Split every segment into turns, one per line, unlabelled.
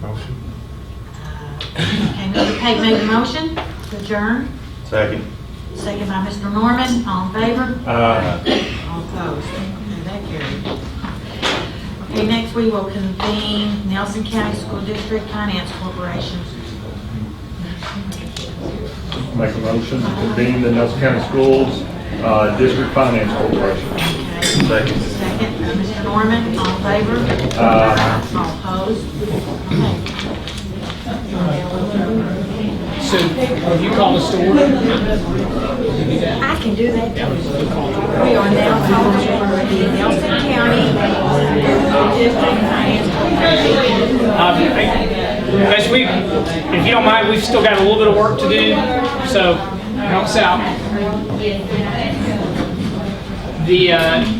Motion.
Okay, Mr. Pate made the motion to adjourn,
Second.
second by Mr. Norman, all in favor?
Aye.
All opposed? Okay, that carried. Okay, next we will convene Nelson County School District Finance Corporation.
Make a motion to convene the Nelson County Schools uh, District Finance Corporation.
Okay,
Second.
second by Mr. Norman, all in favor?
Aye.
All opposed? Okay.
So, you call us to order?
I can do that. We are now calling for the Nelson County School District Finance Corporation.
Um, As we, if you don't mind, we've still got a little bit of work to do, so help us out. The, uh,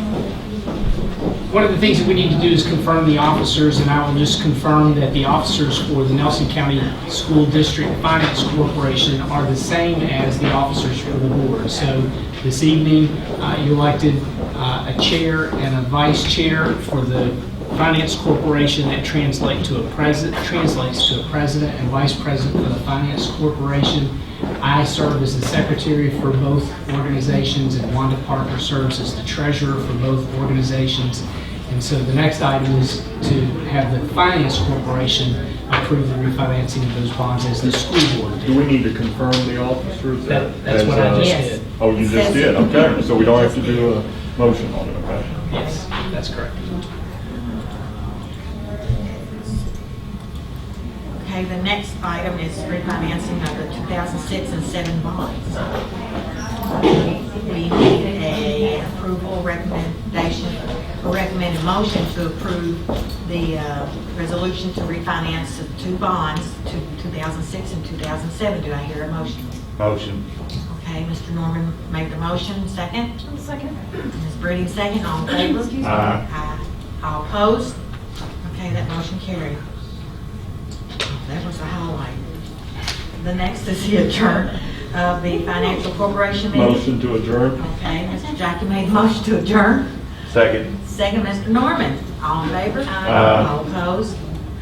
one of the things that we need to do is confirm the officers, and I will just confirm that the officers for the Nelson County School District Finance Corporation are the same as the officers for the board. So this evening, uh, you elected uh, a chair and a vice chair for the Finance Corporation that translate to a president, translates to a president and vice president for the Finance Corporation. I serve as the secretary for both organizations, and Wanda Parker serves as the treasurer for both organizations. And so the next item is to have the Finance Corporation approve the refinancing of those bonds as the school board did.
Do we need to confirm the officers?
That- that's what I
as, uh,
just
Yes.
did.
Oh, you just did, okay, so we don't have to do a motion on it, okay?
Yes, that's correct.
Okay, the next item is refinancing of the 2006 and 7 bonds. We need a approval recommendation, a recommended motion to approve the uh, resolution to refinance the two bonds, to 2006 and 2007. Do I hear a motion?
Motion.
Okay, Mr. Norman made the motion, second.
One second.
Ms. Breeding, second. All in favor?
Excuse me.
Aye.
Aye. All opposed? Okay, that motion carried. That was a highlight. The next is the adjourn of the Financial Corporation meeting.
Motion to adjourn?
Okay, Mr. Jackie made a motion to adjourn.
Second.
Second, Mr. Norman. All in favor?
Aye.
All opposed?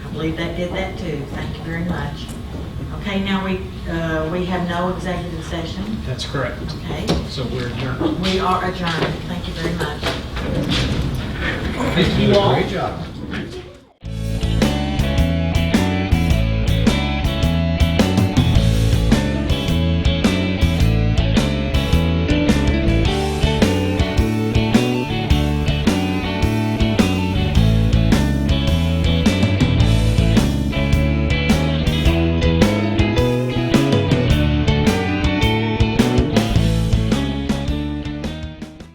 I believe that did that too. Thank you very much. Okay, now we, uh, we have no executive session.
That's correct.
Okay,
So we're adjourned.
we are adjourned. Thank you very much.
Thank you all. Great job.